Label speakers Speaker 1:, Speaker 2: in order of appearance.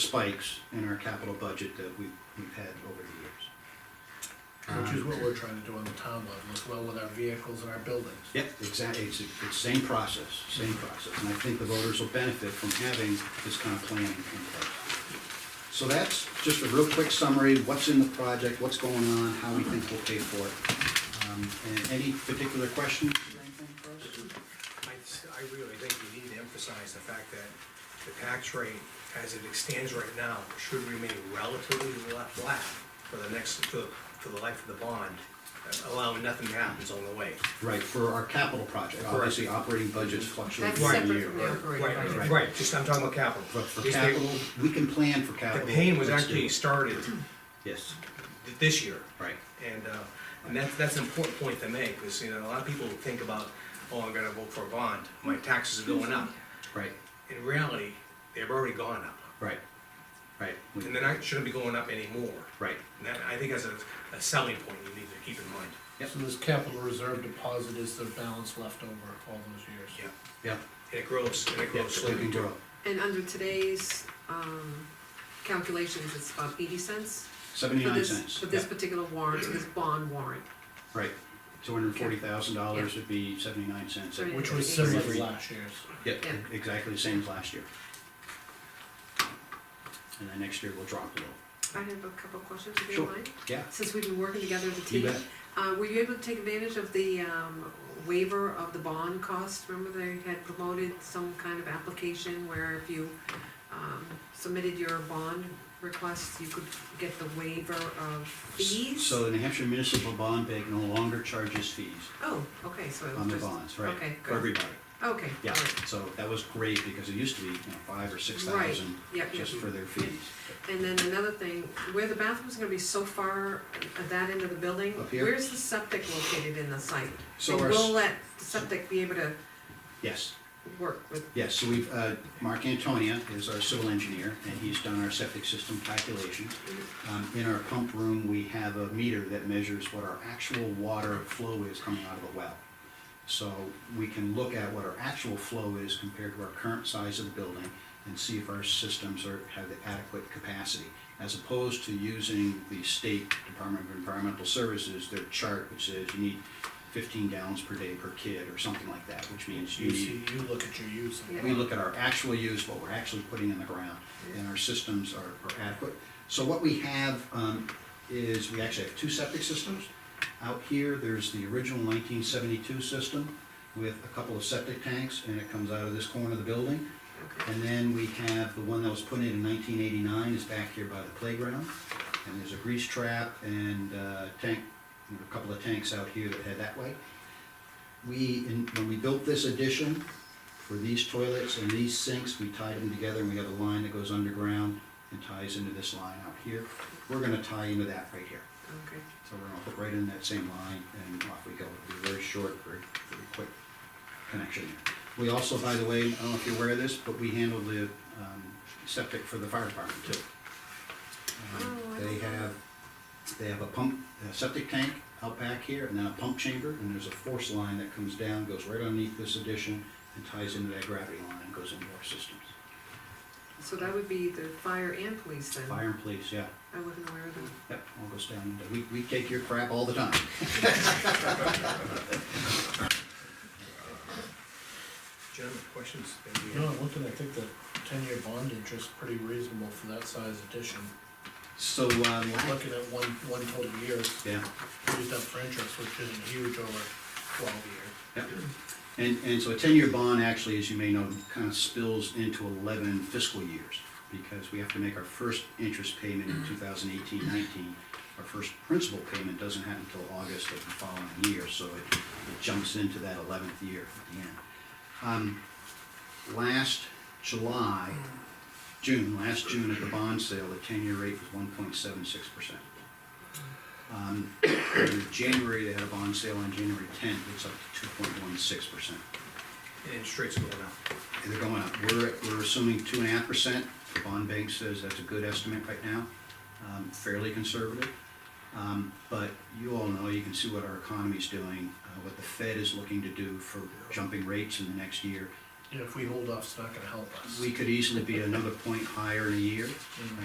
Speaker 1: spikes in our capital budget that we've, we've had over the years.
Speaker 2: Which
Speaker 1: Ah,
Speaker 2: is what we're trying to do on the town level as well with our vehicles and our buildings.
Speaker 1: Yep, exactly, it's, it's the same process, same process, and I think the voters will benefit from having this kind of planning in place. So that's just a real quick summary, what's in the project, what's going on, how we think we'll pay for it. Um, And any particular questions or anything for us?
Speaker 3: I, s- I really think you need to emphasize the fact that the tax rate, as it stands right now, should remain relatively la- flat for the next, for, for the life of the bond, uh, allowing nothing to happen on the way.
Speaker 1: Right, for our capital project, obviously, operating budgets fluctuate
Speaker 4: That's
Speaker 1: from
Speaker 4: separate
Speaker 1: year.
Speaker 4: from the operating
Speaker 3: Right,
Speaker 4: budget.
Speaker 3: right, right, just, I'm talking about capital.
Speaker 1: But for
Speaker 3: Just the-
Speaker 1: capital, we can plan for
Speaker 3: The
Speaker 1: capital.
Speaker 3: pain was
Speaker 1: Let's
Speaker 3: actually
Speaker 1: do it.
Speaker 3: started
Speaker 1: Yes,
Speaker 3: th- this year.
Speaker 1: right,
Speaker 3: And, uh, and that's, that's an important point to make, because, you know, a lot of people think about, oh, I'm gonna vote for a bond, my taxes are going up.
Speaker 1: right,
Speaker 3: In reality, they've already gone up,
Speaker 1: right, right. We-
Speaker 3: and they're not, shouldn't be going up anymore.
Speaker 1: Right,
Speaker 3: And that, I think that's a, a selling point you need to keep in mind.
Speaker 1: Yep.
Speaker 2: So this capital reserve deposit is the balance left over all those years.
Speaker 3: Yeah.
Speaker 1: yeah,
Speaker 3: And it grows, and it
Speaker 1: yeah,
Speaker 3: grows
Speaker 1: so we
Speaker 3: slowly.
Speaker 1: can grow.
Speaker 4: And under today's, um, calculations, it's about eighty cents for
Speaker 1: Seventy-nine
Speaker 4: this,
Speaker 1: cents.
Speaker 4: for this
Speaker 1: yeah.
Speaker 4: particular warrant, so this bond warrant.
Speaker 1: Right, two hundred and forty thousand dollars would be seventy-nine cents.
Speaker 4: Sorry.
Speaker 2: Which was similar to last year's.
Speaker 1: Yeah,
Speaker 4: Yeah.
Speaker 1: exactly the same as last year. And then next year we'll drop a little.
Speaker 4: I have a couple of questions, if you
Speaker 1: Sure.
Speaker 4: don't mind,
Speaker 1: Yeah,
Speaker 4: since we've been working together as a
Speaker 1: you
Speaker 4: team.
Speaker 1: bet.
Speaker 4: Uh, were you able to take advantage of the, um, waiver of the bond cost? Remember they had promoted some kind of application where if you, um, submitted your bond request, you could get the waiver of fees?
Speaker 1: So the New Hampshire Municipal Bond Bank no longer charges fees
Speaker 4: Oh, okay, so it was
Speaker 1: on the
Speaker 4: just.
Speaker 1: bonds, right?
Speaker 4: Okay,
Speaker 1: For
Speaker 4: good.
Speaker 1: everybody,
Speaker 4: Okay,
Speaker 1: yeah.
Speaker 4: all right.
Speaker 1: So that was great because it used to be, you know, five or six
Speaker 4: Right,
Speaker 1: thousand
Speaker 4: yep, yep.
Speaker 1: just for their fees.
Speaker 4: And then another thing, where the bathroom's gonna be so far at that end of the building,
Speaker 1: Up here?
Speaker 4: where's the septic located in the site?
Speaker 1: So
Speaker 4: And
Speaker 1: our s-
Speaker 4: we'll let the septic be able to
Speaker 1: Yes.
Speaker 4: work with,
Speaker 1: Yes, so we've, uh, Mark Antonia is our civil engineer, and he's done our septic system calculations. Um, In our pump room, we have a meter that measures what our actual water flow is coming out of the well. So we can look at what our actual flow is compared to our current size of the building and see if our systems are, have the adequate capacity, as opposed to using the state Department of Environmental Services, their chart, which says you need fifteen gallons per day per kid, or something like that, which means you
Speaker 2: You
Speaker 1: need
Speaker 2: see, you look at your use.
Speaker 4: Yeah.
Speaker 1: we look at our actual use, what we're actually putting in the ground, and our systems are are adequate. So what we have um, is, we actually have two septic systems. Out here, there's the original 1972 system with a couple of septic tanks, and it comes out of this corner of the building.
Speaker 4: okay,
Speaker 1: And then we have the one that was put in in 1989 is back here by the playground. And there's a grease trap and uh, tank, and a couple of tanks out here that head that way. We, in- when we built this addition for these toilets and these sinks, we tied them together and we have a line that goes underground and ties into this line out here. We're gonna tie into that right here.
Speaker 4: okay.
Speaker 1: So we're gonna hook right in that same line and off we go. It'll be very short, very, very quick connection. We also, by the way, I don't know if you're aware of this, but we handle the um, septic for the fire department too. Um,
Speaker 4: Oh, I
Speaker 1: They
Speaker 4: don't know.
Speaker 1: have, they have a pump, a septic tank out back here and then a pump chamber and there's a force line that comes down, goes right underneath this addition and ties into that gravity line and goes into our systems.
Speaker 4: So that would be the fire and police then?
Speaker 1: Fire and police, yeah,
Speaker 4: I wasn't aware of that.
Speaker 1: yep, all goes down. into- We, we take your crap all the time.
Speaker 3: Gentlemen, questions? that we
Speaker 2: No,
Speaker 3: have?
Speaker 2: I'm looking, I think the ten-year bond interest pretty reasonable for that size addition.
Speaker 1: So, um,
Speaker 2: You're looking at one, one total year
Speaker 1: yeah.
Speaker 2: used up for interest, which isn't huge over twelve years.
Speaker 1: Yep. And, and so a ten-year bond actually, as you may know, kind of spills into eleven fiscal years because we have to make our first interest payment in 2018-19. Our first principal payment doesn't happen until August of the following year, so it it jumps into that eleventh year at the end. Um, Last July, June, last June at the bond sale, the ten-year rate was one point seven six percent. Um, in January, they had a bond sale on January tenth, it's up to two point one six percent.
Speaker 3: And interest rates going up.
Speaker 1: They're going up, we're, we're assuming two and a half percent, the bond bank says that's a good estimate right now, um, fairly conservative. Um, but you all know, you can see what our economy's doing, uh, what the Fed is looking to do for jumping rates in the next year.
Speaker 2: Yeah, if we hold off, it's not gonna help us.
Speaker 1: We could easily be another point higher in a year,